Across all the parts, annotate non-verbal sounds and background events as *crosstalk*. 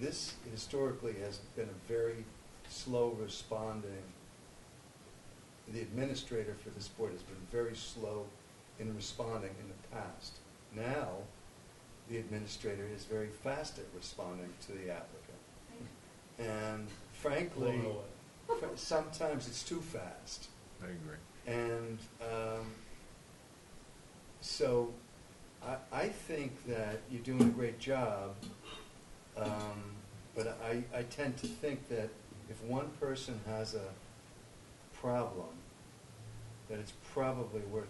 this historically has been a very slow responding. The administrator for this board has been very slow in responding in the past. Now, the administrator is very fast at responding to the applicant. And frankly, Blown away. fr- sometimes it's too fast. I agree. And um, so I, I think that you're doing a great job, um, but I, I tend to think that if one person has a problem, that it's probably worth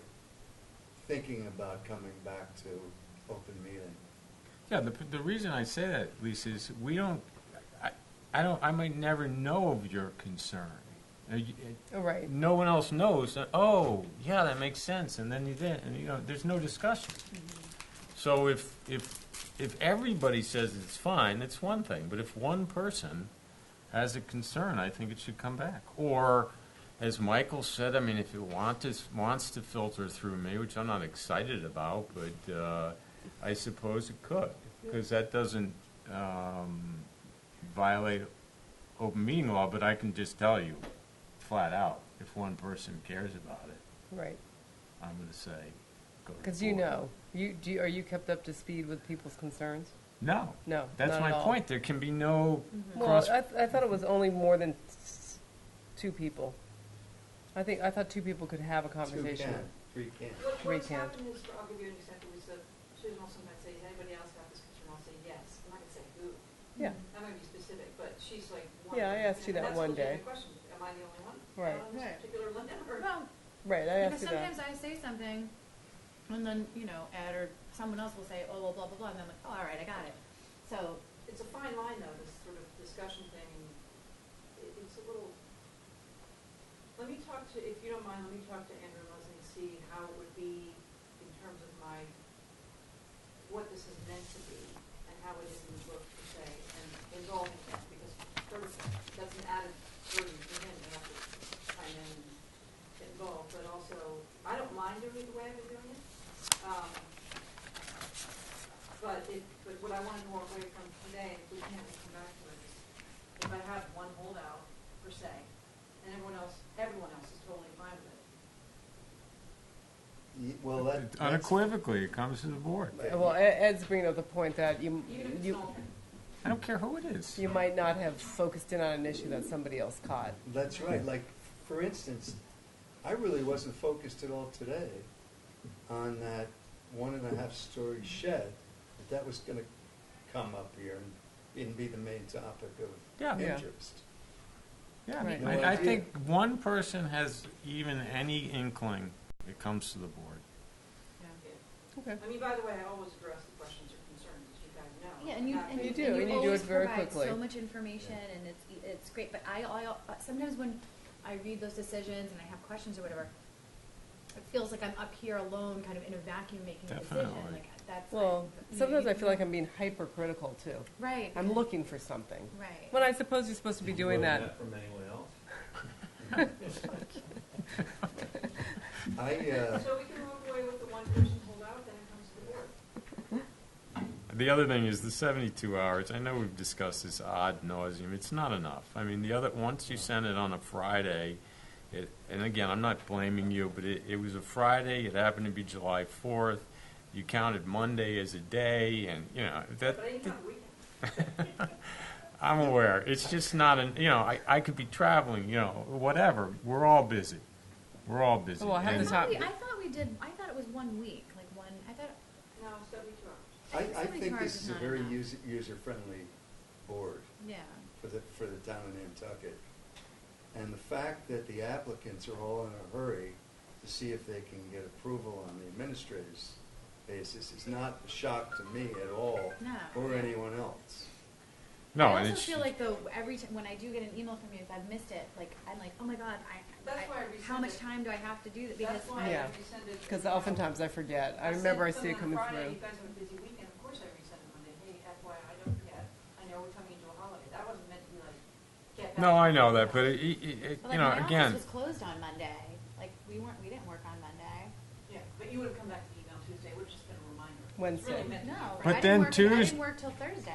thinking about coming back to open meeting. Yeah, the, the reason I say that, Lisa, is we don't, I, I don't, I might never know of your concern. Uh, you- Oh, right. No one else knows, uh, oh, yeah, that makes sense, and then you did, and you know, there's no discussion. So if, if, if everybody says it's fine, it's one thing, but if one person has a concern, I think it should come back. Or, as Michael said, I mean, if it want to, wants to filter through me, which I'm not excited about, but, uh, I suppose it could, because that doesn't, um, violate open meeting law, but I can just tell you flat out, if one person cares about it, Right, I'm gonna say, go to because you board. know, you, do, you- are you kept up to speed with people's concerns? No. No, That's not my at all. Mm-hmm. point. There can be no Well, cross. I, th- I thought it was only more than s- two people. I think, I thought two people could have a Two conversation. can, three can. What, We what's can't. happened is, I'll give you an example, is that Susan also might say, has anybody else got this concern? I'll say, yes. I'm not gonna say who. Yeah, That might be specific, but she's like, one. Yeah, I of- asked you and that that's one a legitimate day. question. Am I the only one? Right. On this Right. particular limit, or? Well, right, I because asked you that. sometimes I say something, and then, you know, Ed or someone else will say, oh, well, blah, blah, blah, and I'm like, oh, all right, I got it. So, It's a fine line though, this sort of discussion thing, and it, it's a little, let me talk to, if you don't mind, let me talk to Andrew and Leslie and see how it would be in terms of my, what this is meant to be, and how it is in the book per se, and involving that, because sort of, that's an added burden for him, to have to chime in and get involved, but also, I don't mind doing it the way I've been doing it. Um, but it, but what I wanted to walk away from today, if we can, we'll come back to it, is if I have one holdout per se, and everyone else, everyone else is totally fine with it. Y- Well, that. that's- Unequivocally, it comes to the board. that- Well, E- Ed's bringing up the point that you, Even if it's you, not, I don't care who it is. you might not have focused in on an issue that somebody else caught. That's right. Like, for instance, I really wasn't focused at all today on that one and a half story shed. That that was going to come up here and, and be the main topic Yeah. of Yeah. interest. Yeah, Right. No I, I idea. think one person has even any inkling, it comes to the *laughs* board. *laughs* yeah. yeah. Okay. I mean, by the way, I always address the questions or concerns, as you guys know. Yeah, and you, Not- and You you, do, and you and you do always it very provide quickly. so much information, and it's, it's great, but I, I, sometimes when I read those decisions and I have questions or whatever, it feels like I'm up here alone, kind of in a vacuum making a decision, Definitely. like, that's. I- Well, you know, sometimes you- I feel like I'm being hypercritical too. Right. I'm looking for something. Right. When I suppose you're supposed to be doing that. From anyone else? I, uh, So we can walk away with the one person holdout, then it comes to the board. The other thing is the 72 hours. I know we've discussed this odd nauseum. It's not enough. I mean, the other once you send it on a Friday, it, and again, I'm not blaming you, but it, it was a Friday. It happened to be July 4th. You counted Monday as a day, and you know that. But anytime, we can. I'm aware. It's just not an. You know, I, I could be traveling. You know, whatever. We're all busy. We're all busy. Well, I have I And- this hot- thought we, I thought we did, I thought it was one week, like one, I thought, No, seventy-two hours. I, think I somebody's think hard this is is a not very enough. user, user-friendly board yeah, for the, for the town of Nantucket. And the fact that the applicants are all in a hurry to see if they can get approval on the administrator's basis is not a shock to me at all. No. Or anyone else. no, I and also it's feel like though, every time, when I do get an email from you, if I've missed it, like, I'm like, oh my god, I, That's why I I, how much resent it. time do I have to do that, because. That's why Yeah. I rescinded. Because oftentimes I forget. I remember I see it coming Friday, through. you guys have a busy weekend, of course I resend it Monday, hey, FYI, I don't forget, I know we're coming into a holiday, that wasn't meant to be like, get back. no, I know that, but it, it, it, Well, you like, know, my again, office was closed on Monday. Like we weren't, we didn't work on Monday. Yeah, but you would have come back to the email Tuesday, it would have just been a reminder. It's really Wednesday. meant to be No, Friday. But I then didn't work, I Tues- didn't work till Thursday.